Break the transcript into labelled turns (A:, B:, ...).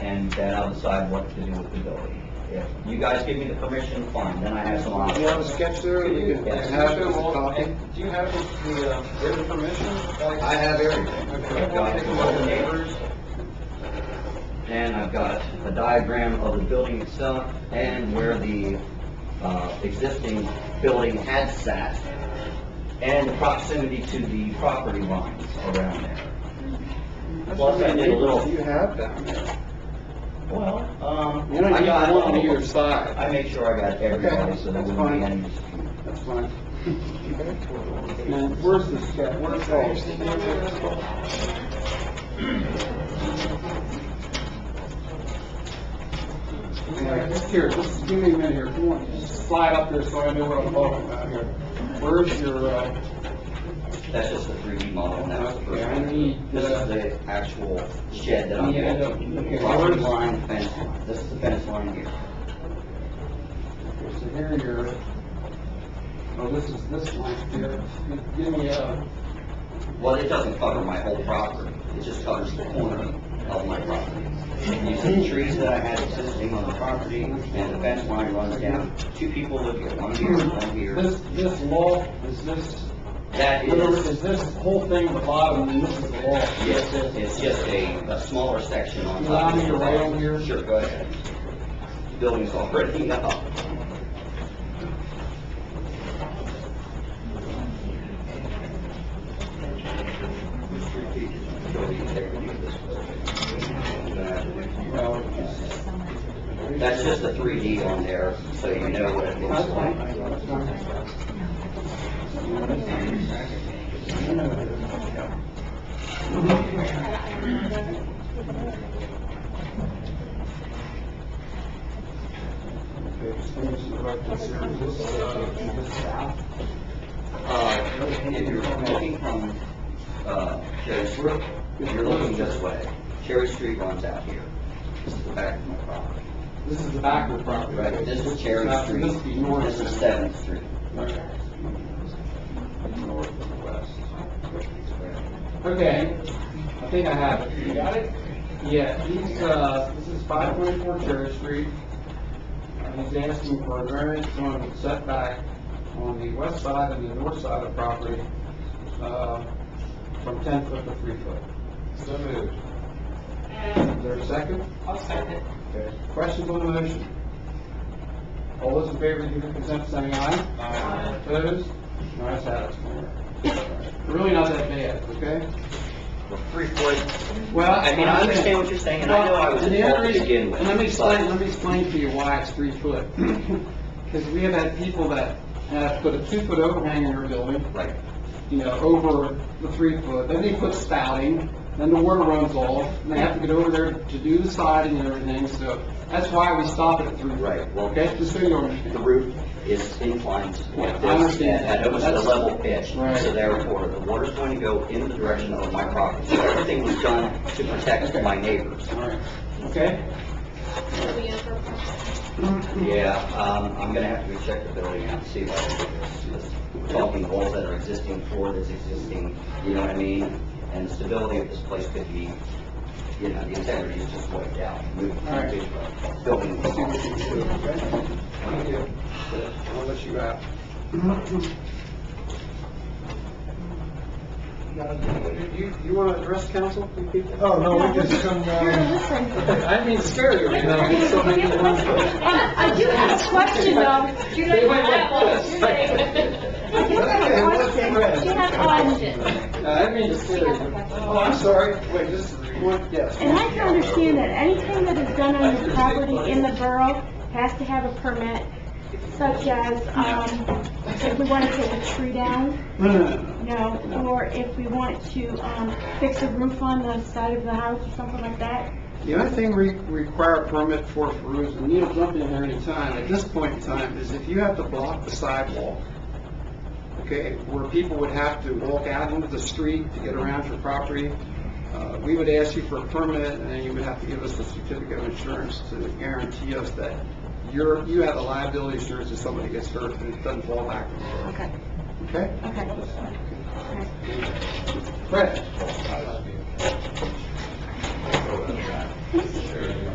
A: then uh, I'll decide what to do with the building. If you guys give me the permission, fine, then I have some
B: You
A: options.
B: have a sketch there, you can
A: Yes.
B: have it as a copy.
C: Do you have the, the, uh, written permission?
B: I have everything.
C: Okay, I've got it.
A: Well, neighbors. And I've got a diagram of the building itself and where the, uh, existing building had sat and the proximity to the property lines around there. Plus, I did a little-
B: You have that.
A: Well, um,
B: You don't
A: I
B: need
A: got
B: one on
A: all
B: either
A: of them.
B: side.
A: I made sure I got everybody, so there
B: uh, that's
A: wouldn't be
B: fine.
A: any.
B: That's fine.
C: Now,
B: where's the sketch? Where's
C: Here, just give me a minute here, come on, just slide up here so I know what I'm talking about here. Where's your, uh,
A: That's just the 3D model, and that's the
C: Okay,
A: first
C: I
A: one.
C: need,
A: This
C: uh,
A: is the actual shed that I'm
C: Yeah,
A: building.
C: okay,
A: Property
C: where's-
A: line, fence line. This is the fence line here.
C: so here your, oh, this is this one here, give me, uh,
A: Well, it doesn't cover my whole property, it just covers the corner of my property. You see trees that I had existing on the property, and the fence line runs down. Two people live here, one here, one here.
C: this, this law, is this,
A: That
C: in other words,
A: is,
C: is this whole thing at the bottom, and this is the law?
A: yes, it- it's just a, a smaller section on
C: Allow
A: top. of
C: me to
A: the
C: rail
A: lot.
C: here.
A: Sure, go ahead. Building's already up. That's just a three D on there, so you know what it looks like. Uh, if you're looking from, uh, Cherry Brook, if you're looking this way, Cherry Street runs out here. This is the back of my property,
C: This is the backward property,
A: right?
C: right?
A: This is Cherry
C: Now,
A: Street,
C: This is the north.
A: this is Seventh Street.
C: Okay, I think I have it. You got it? Yeah, he's, uh, this is five twenty-four Cherry Street. And he's asking for a variance on the setback on the west side and the north side of the property, uh, from ten foot to three foot.
B: So moved.
C: Is there a second? I'll second. Questions on the motion? All those in favor, give their consent, by saying aye. Aye. Opposed? Nice have it. Really not that bad, okay?
A: Three foot.
C: Well,
A: I mean, I understand what you're saying, and I know I was
C: And the other
A: involved to
C: reason-
A: begin with.
C: And let me explain,
A: but-
C: let me explain to you why it's three foot. Because we have had people that have put a two-foot overhang in their building,
A: Right,
C: you know, over the three foot, then they put spouting, then the water runs off, and they have to get over there to do the siding and everything, so that's why we stop it at three.
A: Right, well-
C: Okay, just so you
A: the
C: understand.
A: roof is inclined
C: Yeah, I
A: like this,
C: understand.
A: and at almost a
C: That's-
A: level pitch,
C: Right.
A: so therefore, the water's going to go in the direction of my property. So everything was done to protect my neighbors.
C: All right, okay?
A: Yeah, um, I'm gonna have to go check the building out, see what it is. Talking walls that are existing, floor that's existing, you know what I mean? And the stability of this place could be, you know, the integrity is just wiped out. Move-
C: All right.
A: move- Building.
C: Let's see what we can do, okay?
B: I'll let you out. You, you want to address council, you people?
D: Oh, no, we just come down.
C: I didn't mean to scare you, you know, I so many
E: I do have a question, um, do you
C: They
E: know,
C: went like
E: I
C: this.
E: do have a question, she has a question,
C: Uh, I didn't mean to
E: she
C: scare
E: has a
C: you.
E: question.
B: Oh, I'm sorry, wait, this is, what, yes.
F: And I can understand that anything that is done on the property in the borough has to have a permit, such as, um, if we want to take a tree down,
C: No, no, no.
F: you know, or if we want to, um, fix a roof on the side of the house or something like that.
C: The only thing we require a permit for for is, and Neil, jump in here anytime, at this point in time, is if you have to block the sidewalk, okay, where people would have to walk out into the street to get around your property, uh, we would ask you for a permit, and then you would have to give us a certificate of insurance to guarantee us that you're, you have the liability insurance if somebody gets hurt and it doesn't fall back,
F: Okay,
C: okay?
F: okay.
C: Fred?